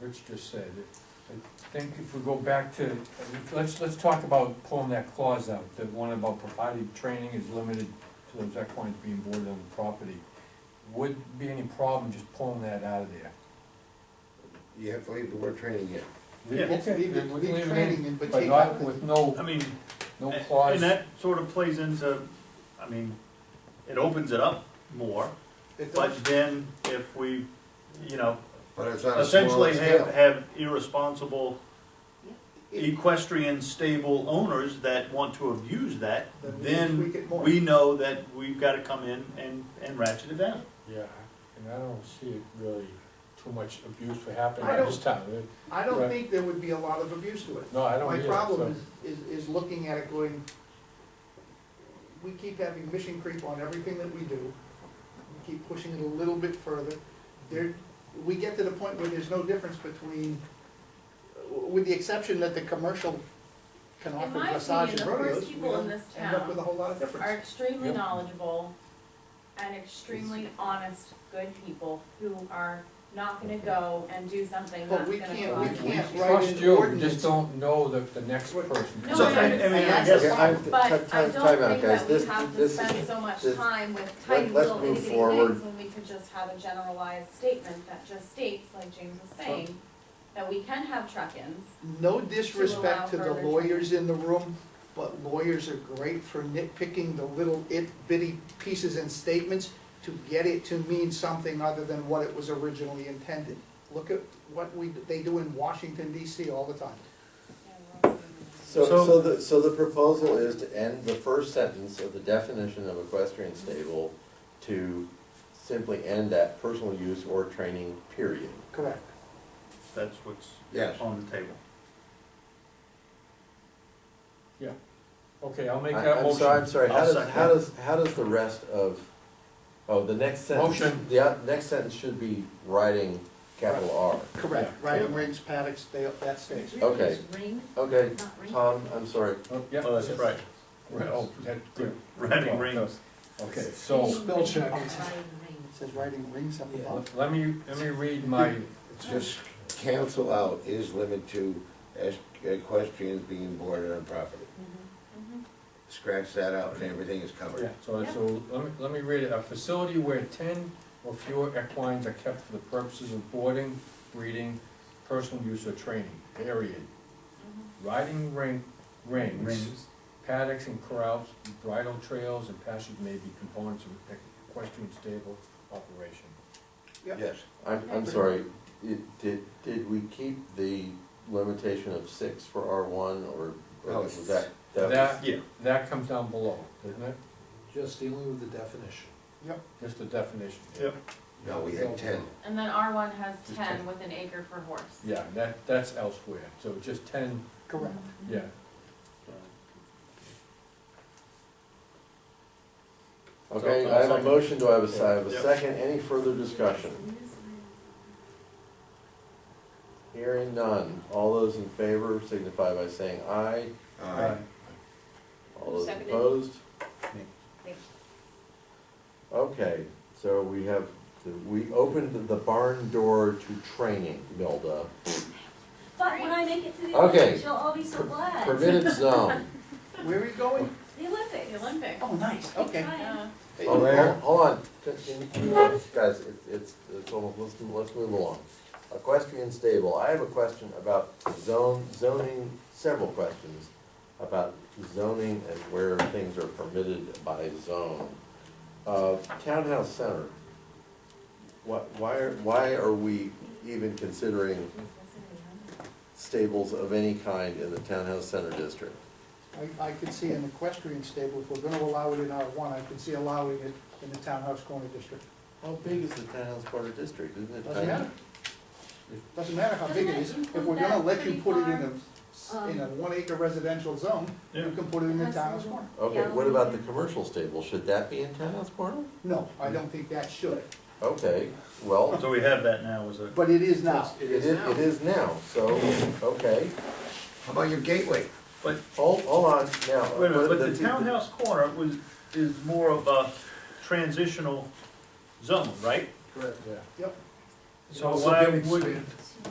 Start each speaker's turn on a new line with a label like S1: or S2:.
S1: Rich just said, I think if we go back to, let's, let's talk about pulling that clause out, the one about provided training is limited to those equines being boarded on the property. Would be any problem just pulling that out of there?
S2: You have to leave the word training in.
S3: Yeah.
S1: Okay,
S4: Yes, leave it,
S1: we'll
S4: leave
S1: leave it in,
S4: training in, but
S1: But
S4: take out
S1: not
S4: the,
S1: with no,
S3: I mean,
S1: no
S3: a-
S1: clause,
S3: and that sort of plays into, I mean, it opens it up more,
S4: it does,
S3: but then if we, you know,
S2: But it's on a smaller
S3: essentially have,
S2: scale.
S3: have irresponsible
S4: it,
S3: equestrian stable owners that want to abuse that,
S4: Then we
S3: then
S4: tweak it more.
S3: we know that we've gotta come in and, and ratchet it down.
S1: yeah, and I don't see it really too much abuse for happening
S4: I
S1: at
S4: don't-
S1: this time, Uh,
S4: I don't think there would be a lot of abuse to it.
S1: no, I don't
S4: My
S1: either,
S4: problem
S1: so-
S4: is, is, is looking at it going, we keep having mission creep on everything that we do. We keep pushing it a little bit further. There, we get to the point where there's no difference between, with the exception that the commercial can
S5: In
S4: offer
S5: my
S4: massage and
S5: opinion, the first
S4: rodeos. we
S5: people
S4: don't
S5: in this
S4: End up
S5: town
S4: with a whole lot of
S5: are
S4: difference.
S5: extremely
S1: Yep.
S5: knowledgeable and extremely honest, good people who are not gonna go and do something
S4: But
S5: that's
S4: we
S5: gonna
S4: can't- we
S5: cause.
S1: We
S4: can't write
S1: trust
S4: an
S1: you, we
S4: ordinance.
S1: just don't know the, the next
S4: Right.
S1: person.
S5: No,
S3: So,
S5: I
S3: I- I mean, I
S5: understand
S3: guess-
S2: Yeah, I'm-
S5: that, but
S2: time-
S5: I
S2: time-
S5: don't
S2: time out,
S5: think
S2: guys.
S5: that we
S2: This-
S5: have to
S2: this
S5: spend
S2: is-
S5: so much
S2: this-
S5: time with tiny
S2: let- let's
S5: little
S2: move
S5: itty bitty
S2: forward.
S5: things when we could just have a generalized statement that just states, like James was saying, that we can have truck-ins.
S4: No disrespect to the
S5: further
S4: lawyers in the room, but lawyers are great for nitpicking the little it bitty pieces and statements to get it to mean something other than what it was originally intended. Look at what we, they do in Washington DC all the time.
S2: So,
S3: So-
S2: so the, so the proposal is to end the first sentence of the definition of equestrian stable to simply end at personal use or training, period.
S4: Correct.
S3: That's what's
S2: Yes.
S3: on the table.
S1: Okay, I'll
S2: I-
S1: make that
S2: I'm sorry, I'm
S1: motion.
S2: sorry, how
S3: I'll
S2: does,
S3: second.
S2: how does, how does the rest of, oh, the next sentence?
S1: Motion.
S2: The uh, next sentence should be writing capital R.
S4: Correct, riding rings, paddocks, they, that stays.
S2: Okay. Okay, Tom, I'm sorry,
S1: Oh, yeah.
S3: Oh, that's right.
S1: Right, oh, that, good.
S3: Ratting rings.
S1: Okay, so,
S4: Spell check.
S6: Ring.
S4: It says riding rings up
S1: l-
S4: above.
S1: let me, let me read my,
S2: Just cancel out is limited to es- equestrians being boarded on property. Scratch that out and everything is covered.
S1: so, so, let me, let me read it, a facility where ten or fewer equines are kept for the purposes of boarding, breeding, personal use or training, period. Riding ring, rings,
S3: Rings.
S1: paddocks and corrals, bridle trails and passes may be components of equestrian stable operation.
S2: Yes, I'm,
S4: Mm-hmm.
S2: I'm sorry, It- did, did we keep the limitation of six for R one or? or was that- that was-
S1: That,
S3: Yeah.
S1: that comes down below, doesn't it?
S6: Just dealing with the definition.
S1: Just the definition.
S3: Yep.
S2: No, we had ten.
S5: And then R one has
S1: Just ten.
S5: ten with an acre per horse.
S1: Yeah, that, that's elsewhere, so just ten,
S4: Correct.
S1: yeah,
S2: Okay,
S1: So, I'll
S2: I have a
S1: second.
S2: motion, do I have a, si- I have a
S3: Yep.
S2: second, any further discussion? Hearing none, all those in favor signify by saying aye,
S1: Aye.
S2: all those
S5: Seconded.
S2: opposed?
S1: Me.
S5: Me.
S2: Okay, so we have, we opened the barn door to training, Milda.
S7: But when I make it to the
S2: Okay.
S7: Olympics, you'll all be so glad.
S2: Permitted zone.
S4: Where are you going?
S7: The Olympics.
S5: The Olympic.
S4: Oh, nice, okay.
S5: Yeah.
S2: Oh, hol- Hold on, Can- can you- guys, it's, it's, it's almost, let's, move- let's move along. Equestrian stable, I have a question about zone, zoning, several questions about zoning and where things are permitted by zone. Uh, townhouse center, what, why are, why are we even considering stables of any kind in the townhouse center district?
S4: I, I could see an equestrian stable, if we're gonna allow it in R one, I could see allowing it in the townhouse corner district.
S2: How big is the townhouse corner district, isn't it?
S4: Doesn't
S2: tiny?
S4: matter. Doesn't matter how big it is, if we're gonna let you put it in a, in a one acre residential zone, you can put it in the townhouse corner.
S2: Okay, what about the commercial stable? Should that be in townhouse corner?
S4: No, I don't think that should,
S2: Okay, well,
S3: So we have that now as a.
S4: but it is now.
S2: it is, it is now, so, okay.
S8: How about your gateway?
S3: But
S2: Hold, hold on now. uh,
S3: Wait a minute, but
S2: The-
S3: the
S2: the-
S3: townhouse corner was, is more of a transitional zone, right?
S1: yeah.
S4: Yep.
S3: So why would,